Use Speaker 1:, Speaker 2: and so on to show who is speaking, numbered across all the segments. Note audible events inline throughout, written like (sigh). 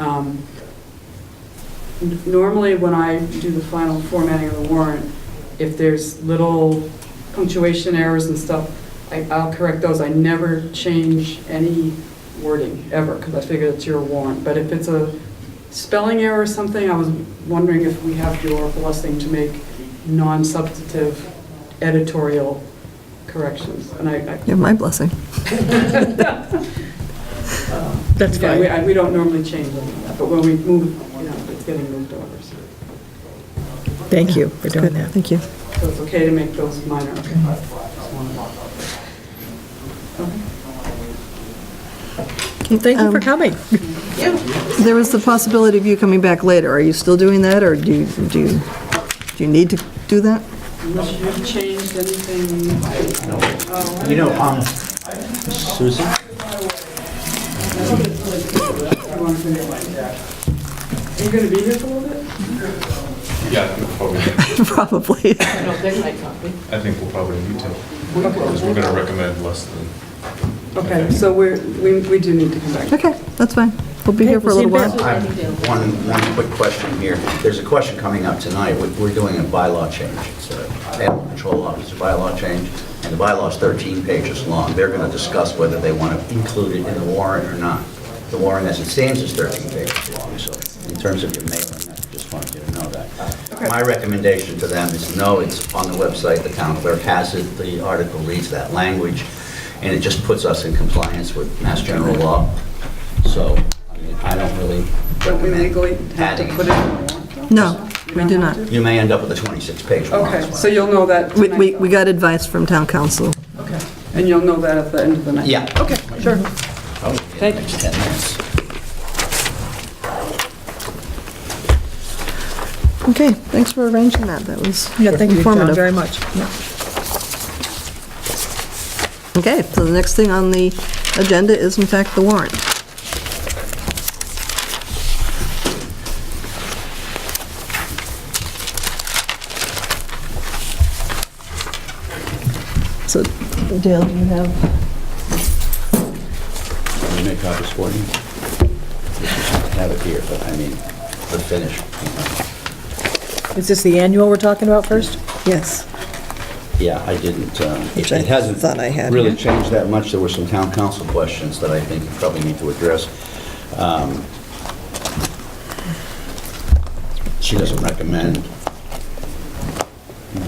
Speaker 1: Um, n- Normally, when I do the final formatting of the warrant, if there's little punctuation errors and stuff, I- I'll correct those. I never change any wording, ever, because I figure it's your warrant. But if it's a spelling error or something, I was wondering if we have your blessing to make non-substantive editorial corrections. And I, I-
Speaker 2: You have my blessing.
Speaker 3: That's
Speaker 1: yeah, we,
Speaker 3: fine.
Speaker 1: I- we don't normally change them, but when we move, you know, it's getting moved over, so.
Speaker 3: Thank you for doing
Speaker 2: Good,
Speaker 3: that.
Speaker 2: thank you.
Speaker 1: So it's okay to make those minor.
Speaker 3: Well, Thank you for
Speaker 2: Um,
Speaker 3: coming.
Speaker 2: There was the possibility of you coming back later. Are you still doing that, or do you, do you, do you need to do that? (laughs)
Speaker 1: Unless you've changed anything.
Speaker 4: You know, um, Susan,
Speaker 1: you want to do. Are you going to be here for a little bit?
Speaker 5: Yeah, we'll probably,
Speaker 2: Probably.
Speaker 5: I think we'll probably need to, because we're gonna recommend less than.
Speaker 1: Okay, so we're, we we do need to come back.
Speaker 2: Okay, that's fine. We'll be here for a little
Speaker 3: we'll see you
Speaker 2: while.
Speaker 4: I have one, one quick question here. There's a question coming up tonight. We- We're doing a bylaw change. It's a animal control officer bylaw change, and the bylaw's 13 pages long. They're going to discuss whether they want to include it in the warrant or not. The warrant as it stands is 13 pages long, so in terms of your mailing, I just wanted you to know that. My recommendation to them is no, it's on the website, the town clerk has it, the article reads that language, and it just puts us in compliance with Mass General Law. So I mean, I don't really
Speaker 1: Don't we legally have to
Speaker 4: adding
Speaker 1: put it in the warrant?
Speaker 2: No, we do not.
Speaker 4: You may end up with a 26-page warrant.
Speaker 1: Okay, so you'll know that
Speaker 2: We, we
Speaker 1: tonight,
Speaker 2: we got advice from town council.
Speaker 1: though. Okay, and you'll know that at the end of the night?
Speaker 4: Yeah. Oh,
Speaker 1: Okay, sure.
Speaker 4: Thank you.
Speaker 2: Okay, thanks for arranging that. That was
Speaker 3: Yeah, thank you, John,
Speaker 2: informative.
Speaker 3: very much. Yeah.
Speaker 2: Okay, so the next thing on the agenda is in fact the warrant. So Dale, do you have,
Speaker 4: Can you make copies for you? Have it here, but I mean, the finish.
Speaker 3: Is this the annual we're talking about first?
Speaker 2: yes.
Speaker 4: Yeah, I didn't, um, it
Speaker 2: Which I
Speaker 4: it hasn't
Speaker 2: thought I had,
Speaker 4: really
Speaker 2: yeah.
Speaker 4: changed that much. There were some town council questions that I think you probably need to address. Um, She doesn't recommend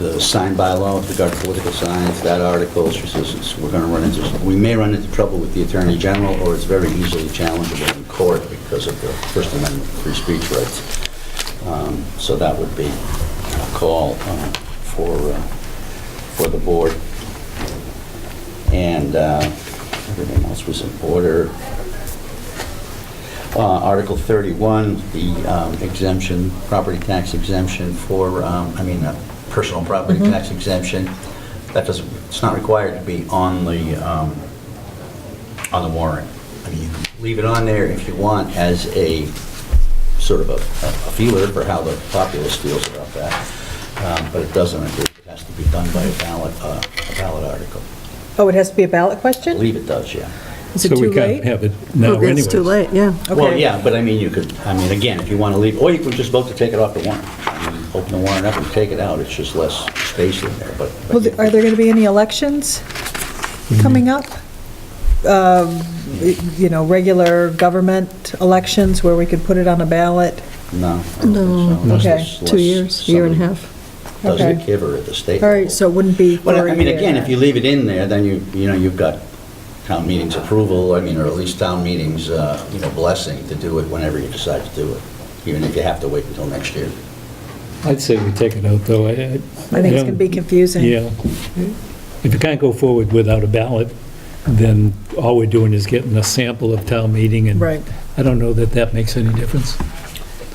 Speaker 4: the sign bylaw with regard to political signs, that article, she says it's- we're going to run into, we may run into trouble with the Attorney General, or it's very easily challengeable in court because of the First Amendment free speech rights. Um, So that would be a call uh, for, uh, for the board. And uh, everything else was in order. Uh, Article 31, the um, exemption, property tax exemption for, um, I mean, uh, personal property tax exemption, that doesn't, it's not required to be on the, um, on the warrant. I mean, you can leave it on there if you want as a sort of a a feeler for how the populace feels about that, Um, but it doesn't, it has to be done by a ballot, uh, a ballot article.
Speaker 3: Oh, it has to be a ballot
Speaker 4: I
Speaker 3: question?
Speaker 4: believe it does, yeah.
Speaker 3: Is it too
Speaker 6: So we can't
Speaker 3: late?
Speaker 6: have it now anyway.
Speaker 2: It's too late, yeah.
Speaker 4: Well,
Speaker 3: Okay.
Speaker 4: yeah, but I mean, you could, I mean, again, if you want to leave, or you could just vote to take it off the warrant. I mean, Open the warrant up and take it out, it's just less space in there, but. but
Speaker 3: Well, th- Are there going to be any elections
Speaker 6: Mm-hmm.
Speaker 3: coming up? Um, y- You know, regular government elections where we could put it on a ballot?
Speaker 4: No. I don't think so,
Speaker 2: No.
Speaker 4: unless
Speaker 3: Okay.
Speaker 4: there's-
Speaker 2: Two
Speaker 4: unless
Speaker 2: years, year and a
Speaker 4: somebody
Speaker 2: half.
Speaker 4: Doesn't
Speaker 3: Okay.
Speaker 4: give her at the state.
Speaker 3: All right,
Speaker 4: level.
Speaker 3: so it wouldn't be for
Speaker 4: Well, I
Speaker 3: a
Speaker 4: mean,
Speaker 3: year.
Speaker 4: again, if you leave it in there, then you, you know, you've got town meeting's approval, I mean, or at least town meeting's, uh, you know, blessing to do it whenever you decide to do it, even if you have to wait until next year.
Speaker 6: I'd say we take it out, though. I think
Speaker 3: I think it's going to be confusing.
Speaker 6: Yeah. If you can't go forward without a ballot, then all we're doing is getting a sample of town meeting, and
Speaker 3: Right.
Speaker 6: I don't know that that makes any difference.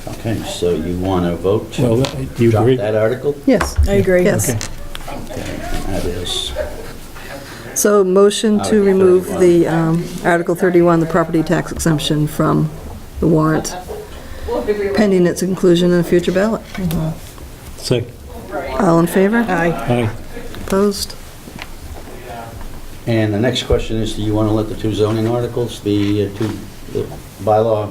Speaker 4: Okay, so you want to vote
Speaker 6: Well,
Speaker 4: to
Speaker 6: do you
Speaker 4: drop
Speaker 6: agree?
Speaker 4: that article?
Speaker 2: Yes,
Speaker 3: I agree.
Speaker 2: yes.
Speaker 4: That is,
Speaker 2: So motion to
Speaker 4: Article
Speaker 2: remove
Speaker 4: 31.
Speaker 2: the, um, Article 31, the property tax exemption from the warrant, pending its inclusion in a future ballot.
Speaker 6: Second.
Speaker 2: All in favor?
Speaker 3: Aye.
Speaker 6: Aye.
Speaker 2: Opposed?
Speaker 4: and the next question is, do you want to let the two zoning articles, the uh, two the bylaw